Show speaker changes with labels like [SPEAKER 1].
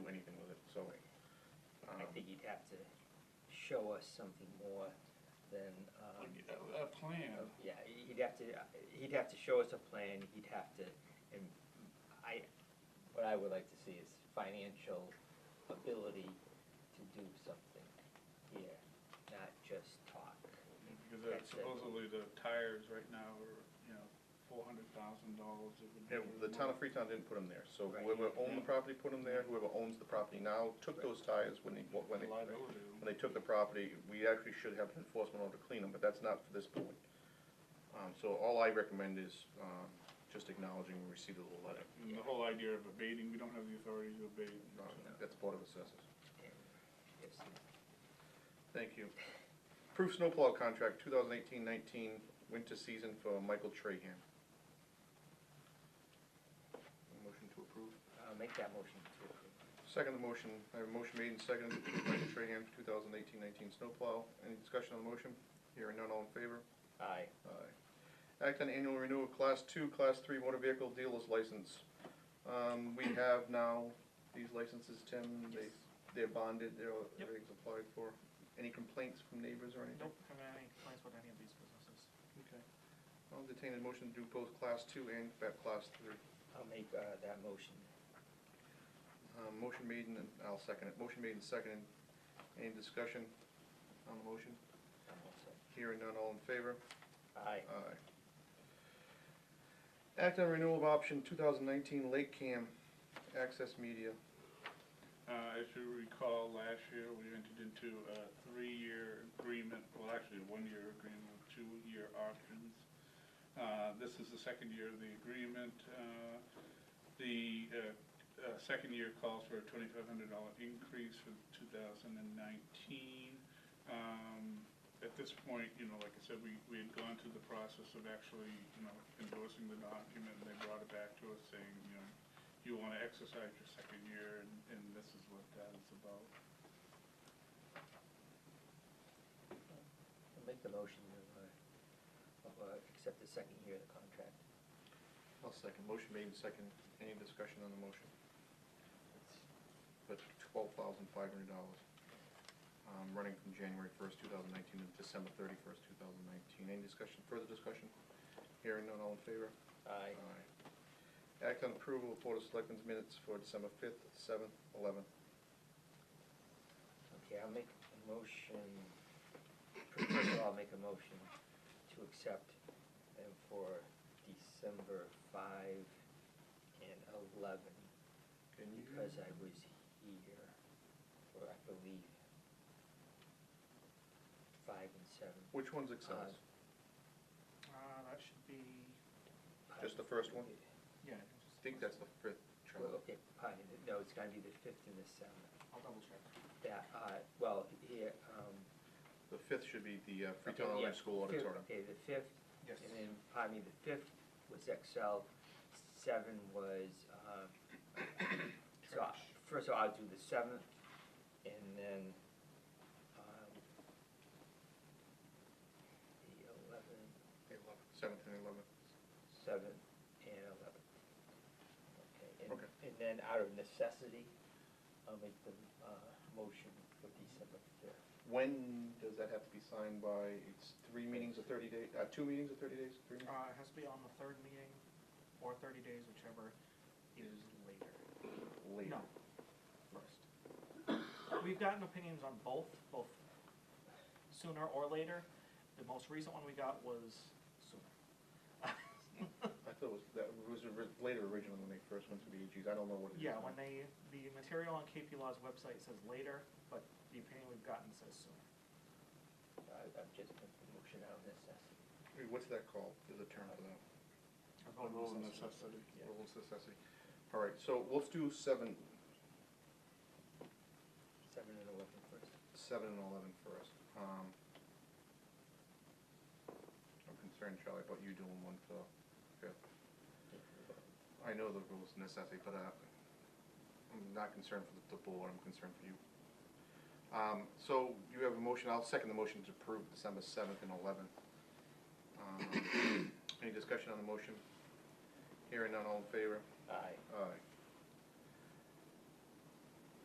[SPEAKER 1] um,
[SPEAKER 2] think you'd have to show us something more than, um,
[SPEAKER 3] Like a, a plan.
[SPEAKER 2] yeah, he'd have to, he'd have to show us a plan, he'd have to, and I, what I would like to see is financial ability to do something here, not just talk.
[SPEAKER 3] Because that's supposedly the tires right now are, you know, four hundred thousand dollars.
[SPEAKER 1] Yeah, the town of Freetown didn't put them there, so
[SPEAKER 2] Right.
[SPEAKER 1] whoever owned the property put them there, whoever owns the property now took those tires when they, when they, when
[SPEAKER 3] Liability.
[SPEAKER 1] they took the property, we actually should have an enforcement order to clean them, but that's not for this board. Um, so all I recommend is, um, just acknowledging we received a little letter,
[SPEAKER 3] And the whole idea of abating, we don't have the authority to abate.
[SPEAKER 1] Um, that's Board of Assessors.
[SPEAKER 2] Yes,
[SPEAKER 1] Thank you. Proof snowplow contract, 2018-19 winter season for Michael Trahan. Motion to approve?
[SPEAKER 2] I'll make that motion to approve.
[SPEAKER 1] Second the motion, I have a motion made and seconded to approve Michael Trahan for 2018-19 snowplow. Any discussion on the motion? Hearing none, all in favor?
[SPEAKER 2] Aye.
[SPEAKER 1] Aye. Act on annual renewal of Class Two, Class Three motor vehicle dealer's license. Um, we have now these licenses, Tim, they,
[SPEAKER 3] Yes.
[SPEAKER 1] they're bonded, they're, all-
[SPEAKER 4] Yep.
[SPEAKER 1] everything's applied for. Any complaints from neighbors or anything?
[SPEAKER 4] Don't have any complaints with any of these businesses.
[SPEAKER 1] Okay. I'll entertain a motion to do both class two and ba- class three.
[SPEAKER 2] I'll make, uh, that motion.
[SPEAKER 1] Um, motion made and, I'll second it, motion made and seconded. Any discussion on the motion?
[SPEAKER 2] I'm also-
[SPEAKER 1] Hearing none, all in favor?
[SPEAKER 2] Aye.
[SPEAKER 1] Aye. Act on renewal of option two thousand nineteen Lake Cam Access Media.
[SPEAKER 3] Uh, as you recall, last year, we entered into a three-year agreement, well, actually, a one-year agreement with two-year options. Uh, this is the second year of the agreement. Uh, the, uh, uh, second year calls for a twenty-five hundred dollar increase for two thousand and nineteen. Um, at this point, you know, like I said, we, we had gone through the process of actually, you know, endorsing the document, and they brought it back to us saying, you know, you wanna exercise your second year, and, and this is what that is about.
[SPEAKER 2] I'll make the motion to, uh, uh, accept the second year of the contract.
[SPEAKER 1] I'll second, motion made and seconded. Any discussion on the motion? But twelve thousand five hundred dollars, um, running from January first, two thousand nineteen to December thirty-first, two thousand nineteen. Any discussion, further discussion? Hearing none, all in favor?
[SPEAKER 2] Aye.
[SPEAKER 1] Aye. Act on approval of Board of Selectmen's minutes for December fifth, seventh, eleventh.
[SPEAKER 2] Okay, I'll make a motion, first of all, I'll make a motion to accept them for December five and eleven,
[SPEAKER 1] Can you?
[SPEAKER 2] because I was here, or I believe, five and seven.
[SPEAKER 1] Which one's excess?
[SPEAKER 4] Uh, that should be,
[SPEAKER 1] Just the first one?
[SPEAKER 4] yeah.
[SPEAKER 1] I think that's the fifth,
[SPEAKER 2] Well,
[SPEAKER 1] Charlie.
[SPEAKER 2] okay, pardon, no, it's gonna be the fifth and the seventh,
[SPEAKER 4] I'll double check.
[SPEAKER 2] that, uh, well, here, um.
[SPEAKER 1] The fifth should be the uh, Freetown
[SPEAKER 2] okay,
[SPEAKER 1] Elementary
[SPEAKER 2] yeah,
[SPEAKER 1] School
[SPEAKER 2] fifth-
[SPEAKER 1] auditorium.
[SPEAKER 2] Okay, the fifth
[SPEAKER 4] Yes.
[SPEAKER 2] And then, pardon me, the fifth was Excel, seven was, um, so, I- first of all, I'll do the seventh, and then, um, the eleventh,
[SPEAKER 1] Seventh and eleventh.
[SPEAKER 2] seventh, and eleventh. Okay, and,
[SPEAKER 1] Okay.
[SPEAKER 2] and then out of necessity, I'll make the, uh, motion for December fifth.
[SPEAKER 1] When does that have to be signed by, it's three meetings of thirty days, uh, two meetings of thirty days, three meetings?
[SPEAKER 4] Uh, it has to be on the third meeting or thirty days, whichever is later.
[SPEAKER 1] Later.
[SPEAKER 4] No, first. We've gotten opinions on both, both sooner or later. The most recent one we got was sooner.
[SPEAKER 1] I thought it was, that was ori- later original when they first went to the AG's, I don't know what it is.
[SPEAKER 4] Yeah,
[SPEAKER 1] now.
[SPEAKER 4] when they, the material on KP Law's website says later, but the opinion we've gotten says sooner.
[SPEAKER 2] I, I've just put the motion out of necessity.
[SPEAKER 1] Hey, What's that called? There's a term for that.
[SPEAKER 4] Or
[SPEAKER 3] A
[SPEAKER 4] vote on
[SPEAKER 3] rule of
[SPEAKER 4] this as-
[SPEAKER 3] necessity.
[SPEAKER 4] Yeah.
[SPEAKER 1] Rules of necessity. All right, so let's do seven,
[SPEAKER 2] Seven and eleven first.
[SPEAKER 1] seven and eleven first. Um, I'm concerned, Charlie, about you doing one for fifth. I know the rules of necessity, but uh, I'm not concerned for the- the board, I'm concerned for you. Um, So you have a motion, I'll second the motion to approve December 7th and 11th. Um, Any discussion on the motion? Hearing none, all in favor?
[SPEAKER 2] Aye.
[SPEAKER 1] Aye.